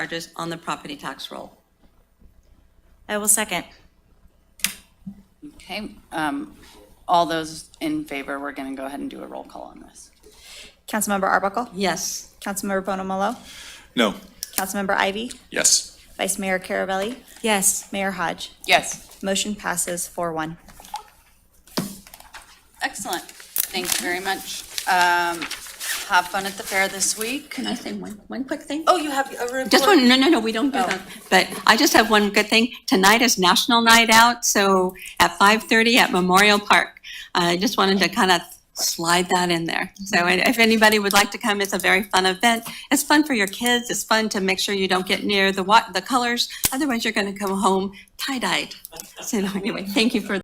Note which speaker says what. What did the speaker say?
Speaker 1: charges on the property tax roll.
Speaker 2: I will second.
Speaker 3: Okay, um, all those in favor, we're going to go ahead and do a roll call on this.
Speaker 2: Councilmember Arbuckle?
Speaker 1: Yes,
Speaker 2: Councilmember Bonamalo?
Speaker 4: No.
Speaker 2: Councilmember Ivy?
Speaker 4: Yes.
Speaker 2: Vice Mayor Carabelli? Yes. Mayor Hodge?
Speaker 3: Yes,
Speaker 2: Motion passes four one.
Speaker 3: excellent. Thank you very much. Um, have fun at the fair this week.
Speaker 1: can I say one, one quick thing?
Speaker 3: Oh, you have a report?
Speaker 1: Just one, no, no, no, we don't do that. But I just have one good thing. Tonight is National Night Out, so at 5:30 at Memorial Park. I just wanted to kind of slide that in there. So and if anybody would like to come, it's a very fun event. It's fun for your kids. It's fun to make sure you don't get near the wa, the colors. Otherwise, you're going to come home tie-dyed. So anyway, thank you for